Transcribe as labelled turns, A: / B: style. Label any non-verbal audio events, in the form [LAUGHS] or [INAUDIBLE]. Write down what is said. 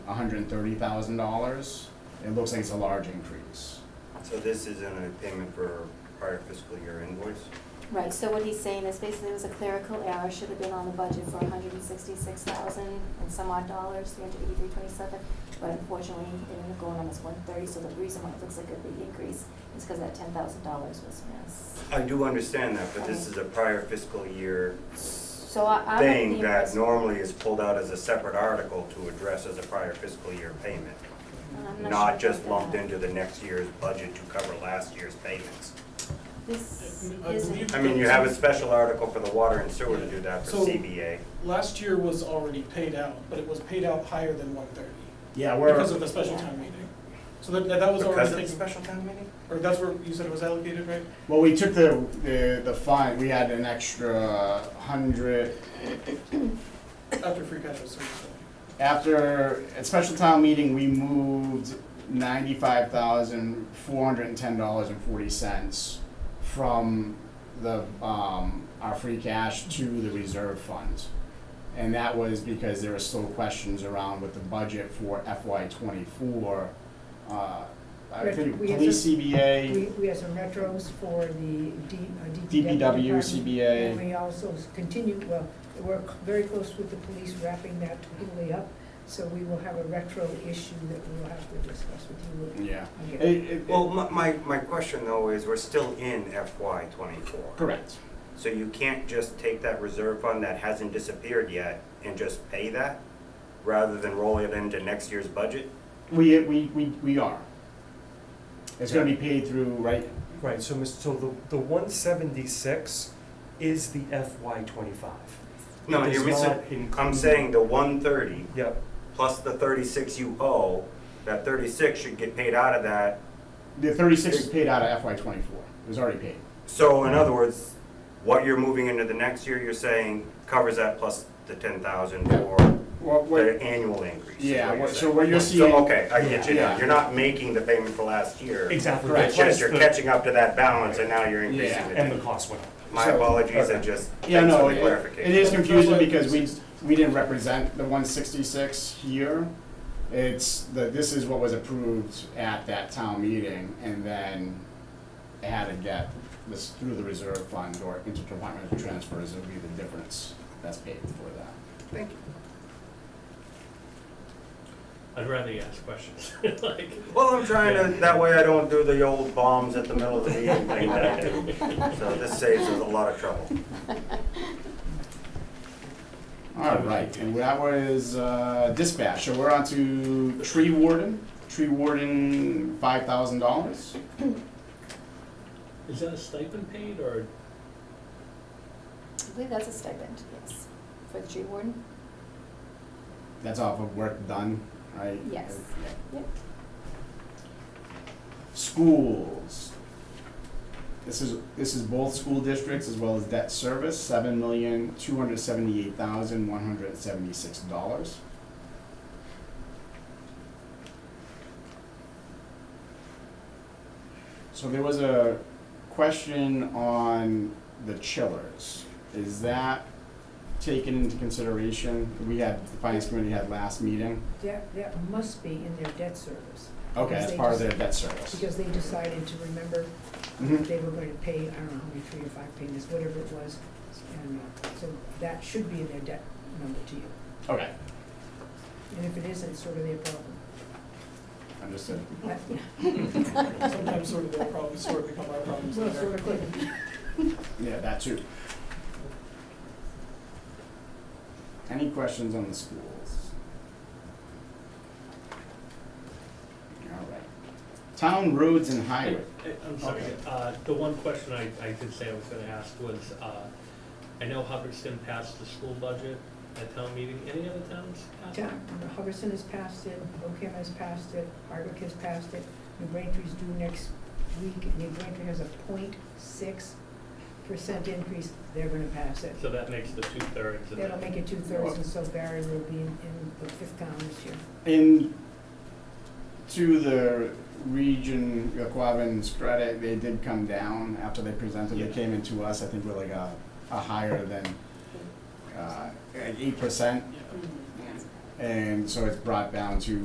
A: hundred and thirty thousand dollars. It looks like it's a large increase.
B: So this is in a payment for prior fiscal year invoice?
C: Right, so what he's saying is basically it was a clerical error, should have been on the budget for hundred and sixty-six thousand and some odd dollars, three hundred eighty-three twenty-seven, but unfortunately, it ended up going on as one thirty, so the reason why it looks like a big increase is because that ten thousand dollars was missed.
B: I do understand that, but this is a prior fiscal year
C: So I, I'm. of
B: thing
C: the
B: that
C: impression-
B: normally is pulled out as a separate article to address as a prior fiscal year payment,
C: and I'm
B: not
C: sure
B: just
C: about
B: lumped
C: that.
B: into the next year's budget to cover last year's payments.
C: This
D: I
C: isn't, [LAUGHS]
D: believe-
B: I mean, you have a special article for the water and sewer to do that for
D: So-
B: CBA.
D: Last year was already paid out, but it was paid out higher than one thirty
A: Yeah, we're.
D: because of the special town meeting. So that, that was
B: Because
D: already
B: of the
D: taken,
B: special town meeting?
D: or that's where you said it was allocated, right?
A: Well, we took the, the, the fine, we had an extra hundred,
D: After free cash was certified.
A: after, at special town meeting, we moved ninety-five thousand, four hundred and ten dollars and forty cents from the, um, our free cash to the reserve fund. And that was because there were still questions around with the budget for FY twenty-four. Uh, I
E: Right,
A: think
E: we had
A: police
E: just-
A: CBA.
E: We, we have some retros for the D, uh,
A: DPW,
E: DPW. department,
A: CBA.
E: And we also continue, well, we're c- very close with the police wrapping that totally up, so we will have a retro issue that we will have to discuss with you
A: Yeah. It,
E: again.
A: it,
B: Well, my, my, my question though is, we're still in FY twenty-four.
A: correct.
B: So you can't just take that reserve fund that hasn't disappeared yet and just pay that, rather than roll it into next year's budget?
A: We, we, we, we are. It's gonna be paid through, right,
F: Right, so, Mr. so the, the one seventy-six is the FY twenty-five.
B: No, you're missing, I'm saying the one thirty
F: Yep,
B: plus the thirty-six you owe, that thirty-six should get paid out of that.
A: the thirty-six is paid out of FY twenty-four, it was already paid.
B: So in other words, what you're moving into the next year, you're saying covers that plus the ten thousand for
A: What,
B: the annual increase. is
A: Yeah,
B: what you're
A: what- so
B: saying.
A: what you're seeing-
B: So, okay, I get you now,
A: Yeah.
B: you're not making the payment for last year.
F: exactly.
A: Correct.
B: It's
F: That's
B: just you're
F: the-
B: catching up to that balance and now you're increasing
A: Yeah.
B: the
F: And the
B: debt.
F: cost went up.
B: My
A: So-
B: apologies, I
A: okay.
B: just,
A: Yeah,
B: thanks
A: no,
B: for the
A: it, it
B: clarification.
A: is confusing because we, we didn't represent the one sixty-six here. It's, the, this is what was approved at that town meeting, and then it had to get this through the reserve fund or interdepartmental transfers, it'll be the difference that's paid for that.
E: Thank you.
G: I'd rather you ask questions. [LAUGHS] like,
B: Well, I'm trying to, that way I don't do the old bombs at the middle of the meeting thing that I [LAUGHS] do. So this saves us a lot of trouble.
A: All right, and that was uh, dispatch, so we're on to tree warden, tree warden, five thousand dollars.
G: is that a stipend paid or
C: I believe that's a stipend, yes, for the tree warden, [LAUGHS]
A: That's off of work done, right?
C: Yes.
A: Yeah.
C: yep.
A: Schools. This is, this is both school districts as well as debt service, seven million, two hundred seventy-eight thousand, one hundred seventy-six dollars. So there was a question on the chillers. Is that taken into consideration? We had, the finance committee had last meeting.
E: That, that must be in their debt service,
A: Okay,
E: Because
A: as
E: they
A: part of
E: just-
A: their debt service.
E: because they decided to remember
A: Mhm.
E: they were going to pay, I don't know how many, three or five payments, whatever it was, and uh, so that should be in their debt number to you.
A: Okay,
E: And if it isn't, it's sort of their problem.
A: understood.
E: But-
D: Sometimes sort of their problems sort of become our problems
E: Well, sort of,
D: later.
A: Yeah, that too. Any questions on the schools? All right. Town roads and
G: I,
A: highway.
G: I- I'm sorry,
A: Okay.
G: uh, the one question I, I did say I was gonna ask was, uh, I know Hubbardston passed the school budget at town meeting, any other towns? pass it?
E: Town, Hubbardson has passed it, Oakham has passed it, Hardwick has passed it, New Braintree's due next week, New Braintree has a 0.6 percent increase, they're gonna pass it.
G: So that makes the two thirds of that.
E: That'll make it two thirds, and so Barry will be in, in the fifth town this year.
A: In, to the region, Quavin's credit, they did come down after they presented, they
G: Yeah.
A: came into us, I think we're like a, a higher than, uh, eight percent.
G: Yeah.
A: And so it's brought down to